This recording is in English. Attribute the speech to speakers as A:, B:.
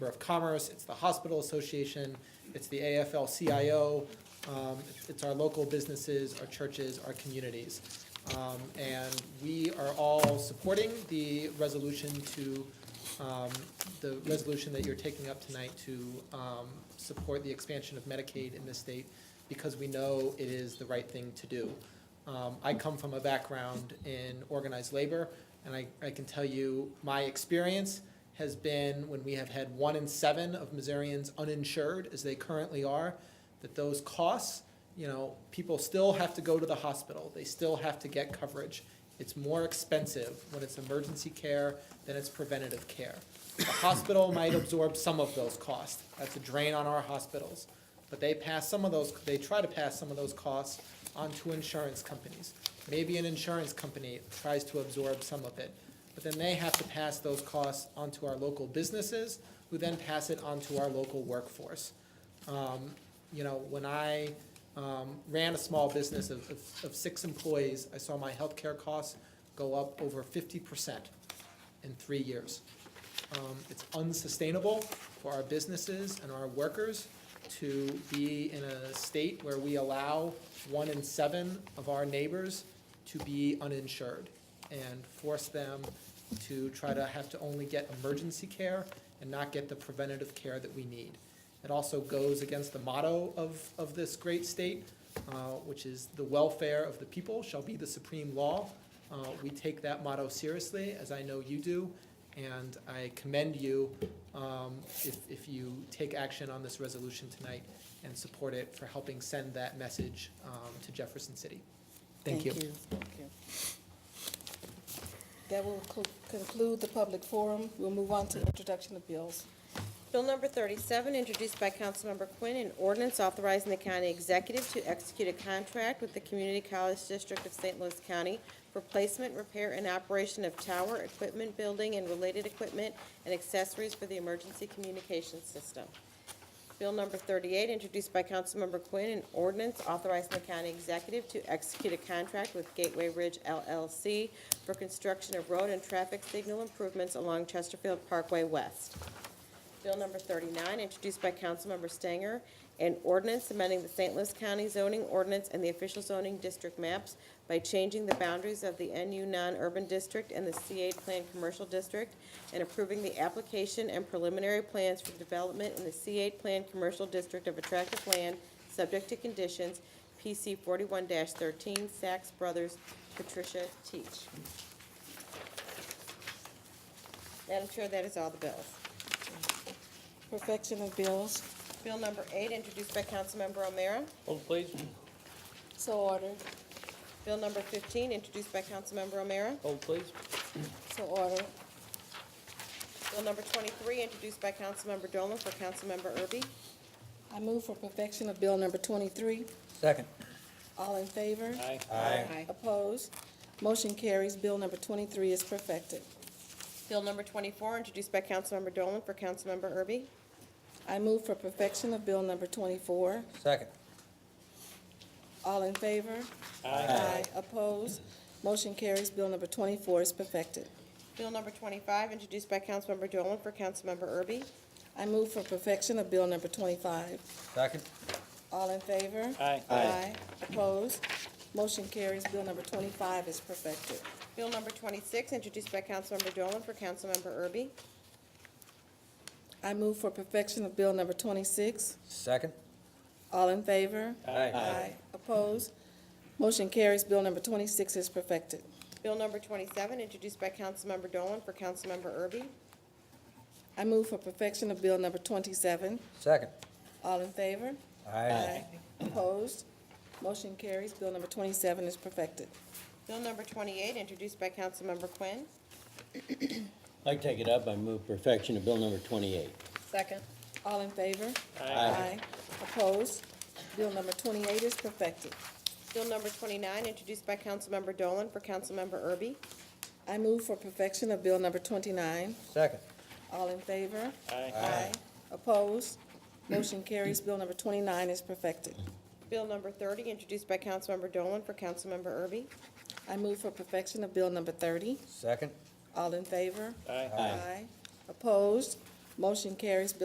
A: Chamber of Commerce, it's the Hospital Association, it's the AFL-CIO, um, it's our local businesses, our churches, our communities. Um, and we are all supporting the resolution to, um, the resolution that you're taking up tonight to, um, support the expansion of Medicaid in this state because we know it is the right thing to do. Um, I come from a background in organized labor, and I, I can tell you, my experience has been when we have had one in seven of Missourians uninsured, as they currently are, that those costs, you know, people still have to go to the hospital, they still have to get coverage. It's more expensive when it's emergency care than it's preventative care. The hospital might absorb some of those costs, that's a drain on our hospitals, but they pass some of those, they try to pass some of those costs onto insurance companies. Maybe an insurance company tries to absorb some of it, but then they have to pass those costs onto our local businesses, who then pass it onto our local workforce. Um, You know, when I um, ran a small business of, of- of six employees, I saw my healthcare costs go up over fifty percent in three years. Um, It's unsustainable for our businesses and our workers to be in a state where we allow one in seven of our neighbors to be uninsured and force them to try to have to only get emergency care and not get the preventative care that we need. It also goes against the motto of, of this great state, uh, which is the welfare of the people shall be the supreme law. Uh, we take that motto seriously, as I know you do, and I commend you um, if, if you take action on this resolution tonight and support it for helping send that message um, to Jefferson City. Thank you.
B: Thank you. That will co- conclude the public forum. We'll move on to introduction of bills.
C: Bill number 37, introduced by Councilmember Quinn, an ordinance authorizing the county executive to execute a contract with the Community College District of St. Louis County for placement, repair, and operation of tower, equipment, building, and related equipment and accessories for the emergency communications system. Bill number 38, introduced by Councilmember Quinn, an ordinance authorizing the county executive to execute a contract with Gateway Ridge LLC for construction of road and traffic signal improvements along Chesterfield Parkway West. Bill number 39, introduced by Councilmember Stanger, an ordinance amending the St. Louis County zoning ordinance and the official zoning district maps by changing the boundaries of the NU non-urban district and the C8 Plan Commercial District, and approving the application and preliminary plans for development in the C8 Plan Commercial District of attractive land, subject to conditions, PC 41-13, Saks Brothers, Patricia Teach. Madam Chair, that is all the bills.
B: Perfection of bills,
C: Bill number eight, introduced by Councilmember O'Meara.
D: Hold please.
B: so ordered,
C: Bill number fifteen, introduced by Councilmember O'Meara.
D: Hold please.
B: so ordered,
C: Bill number twenty-three, introduced by Councilmember Dolan for Councilmember Erby.
B: I move for perfection of bill number twenty-three.
D: Second.
B: All in favor?
D: Aye.
C: Aye.
B: Opposed? Motion carries. Bill number twenty-three is perfected.
C: Bill number twenty-four, introduced by Councilmember Dolan for Councilmember Erby.
B: I move for perfection of bill number twenty-four.
D: Second.
B: All in favor? Aye. Opposed? Motion carries. Bill number twenty-four is perfected.
C: Bill number twenty-five, introduced by Councilmember Dolan for Councilmember Erby.
B: I move for perfection of bill number twenty-five.
D: Second.
B: All in favor?
D: Aye.
B: Aye. Opposed? Motion carries. Bill number twenty-five is perfected.
C: Bill number twenty-six, introduced by Councilmember Dolan for Councilmember Erby.
B: I move for perfection of bill number twenty-six.
D: Second.
B: All in favor?
D: Aye.
B: Opposed? Motion carries. Bill number twenty-six is perfected.
C: Bill number twenty-seven, introduced by Councilmember Dolan for Councilmember Erby.
B: I move for perfection of bill number twenty-seven.
D: Second.
B: All in favor? Opposed? Motion carries. Bill number twenty-seven is perfected.
C: Bill number twenty-eight, introduced by Councilmember Quinn.
E: I take it up, I move perfection of bill number twenty-eight.
C: Second.
B: All in favor?
E: Aye.
B: Opposed? Bill number twenty-eight is perfected.
C: Bill number twenty-nine, introduced by Councilmember Dolan for Councilmember Erby.
B: I move for perfection of bill number twenty-nine.
D: Second.
B: All in favor?
D: Aye.
B: Opposed? Motion carries. Bill number twenty-nine is perfected.
C: Bill number thirty, introduced by Councilmember Dolan for Councilmember Erby.
B: I move for perfection of bill number thirty.
D: Second.
B: All in favor?
D: Aye.
E: Aye.
B: Opposed? Motion carries. Bill